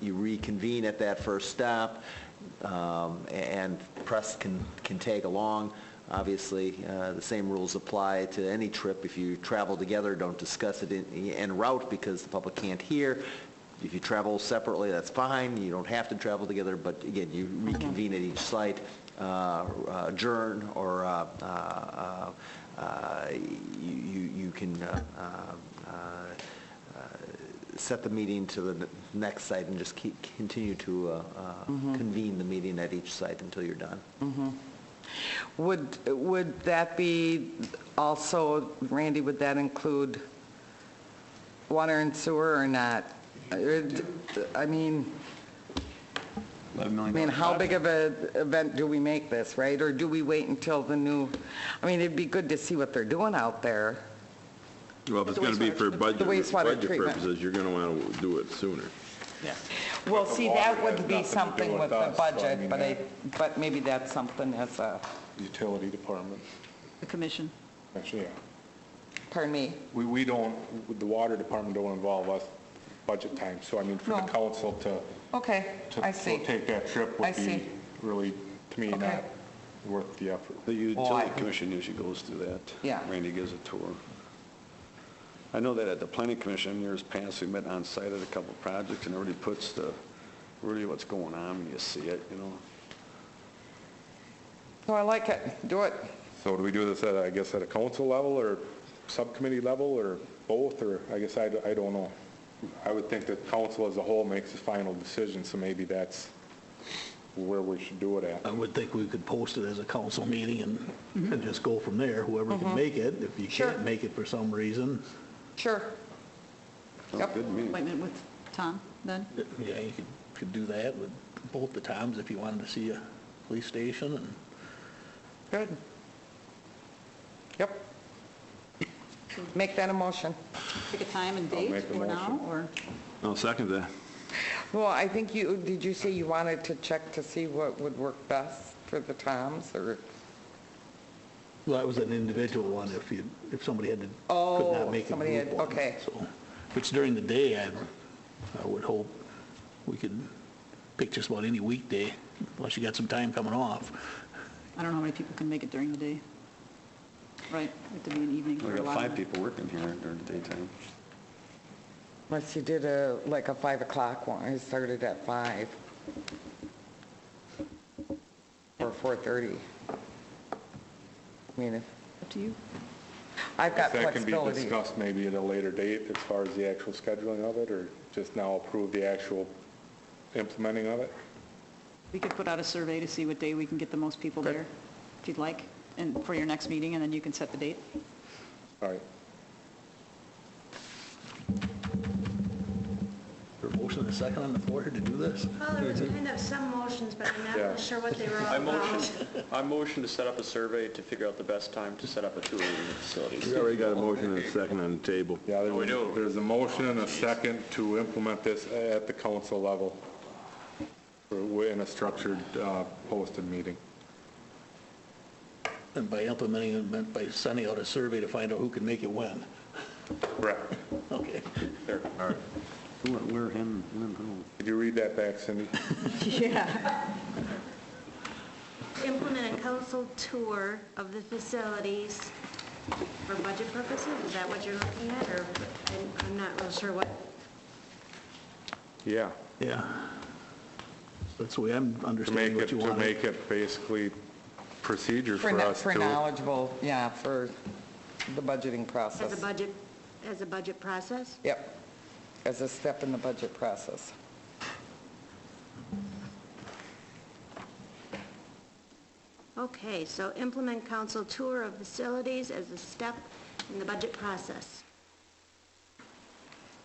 you reconvene at that first stop, um, and press can, can tag along. Obviously, uh, the same rules apply to any trip. If you travel together, don't discuss it in- en route because the public can't hear. If you travel separately, that's fine, you don't have to travel together, but again, you reconvene at each site, uh, adjourn, or uh, uh, uh, you you- you can uh, uh, uh, set the meeting to the next site and just keep, continue to uh, uh, Mm-hmm. convene the meeting at each site until you're done. Would, would that be also, Randy, would that include water and sewer or not? Or d- I mean, I mean, how big of a event do we make this, right? Or do we wait until the new, I mean, it'd be good to see what they're doing out there. Well, if it's going to be for budget, The wastewater budget treatment. purposes, you're going to want to do it sooner. Well, see, that would Water be has nothing to do something with with the us, so I budget, mean, but I, that- but maybe that's something as a, utility department, The commission. actually, yeah. pardon me, We, we don't, the water department don't involve us budget time, so I mean, for the No. council to, okay, to I see. to take that trip I would see. be really, to me, Okay. not worth the effort. The Well, I- utility commission usually goes through that. Yeah. Randy gives a tour. I know that at the planning commission, years past, we met on site at a couple of projects, and it really puts the, really what's going on when you see it, you know? So I like it, do it. So do we do this at, I guess, at a council level or subcommittee level or both, or, I guess, I, d- I don't know. I would think that council as a whole makes the final decision, so maybe that's where we should do it I at. would think we could post it as a council meeting and, and just go from there, whoever can make it. If you Mm-hmm. Sure. can't make it for some reason, Sure. Sounds Yep. good to me. Appointment with Tom, then? yeah, you could, could do that with both the times if you wanted to see a police station and Good. Yep. Make that a motion. Pick a time and date make the for now, motion. or? I'll second that. Well, I think you, did you say you wanted to check to see what would work best for the Toms, or? Well, that was an individual one, if you, if somebody had to, could Oh, not make a somebody group had- one. okay. So, if it's during the day, I, I would hope we could pick just about any weekday, unless you got some time coming off. I don't know how many people can make it during the day. Right, it would be an evening We for a got lot of five them. people working here during the daytime. Unless you did a, like a 5 o'clock one, it started at 5. Or 4:30. I mean, if, Up to you. I've got That can be flexibility. discussed maybe at a later date as far as the actual scheduling of it, or just now approve the actual implementing of it? We could put out a survey to see what day we can get the most people there, if you'd like, and for your next meeting, and then you can set the date. All right. There a motion and a second on the floor to do this? Well, there was kind of some motions, but I'm not Yeah. really sure what they were all I about. motion, I motion to set up a survey to figure out the best time to set up a tour of the facilities. We already got a motion and a second on the table. Yeah, Oh, we there's, do. a- there's a motion and a second to implement this at the council level. We're in a structured, uh, posted meeting. And by implementing it, meant by sending out a survey to find out who can make it when. Correct. Okay. Who, where, him, when, who? Did you read that back, Cindy? Yeah. Implement a council tour of the facilities for budget purposes, is that what you're looking at, or I'm- I'm not real sure what, Yeah. Yeah. That's the way I'm To make understanding it, what you to want. make it basically procedure For for no- us For to. knowledgeable, yeah, for the budgeting as a process. budget, as a budget process? Yep, as a step in the budget process. Okay, so implement council tour of facilities as a step in the budget process.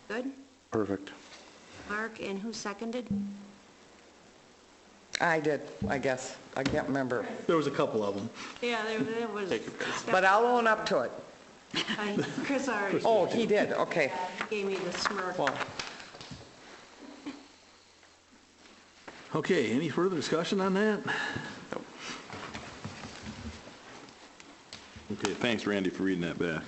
Good? Perfect. Mark, and who seconded? I did, I guess. I can't remember. There was a couple of them. Yeah, there- there was. But I'll own up to it. I- Chris already Oh, he did, okay. gave me the smirk. Well, Okay, any further discussion on that? Okay, thanks Randy for reading that back.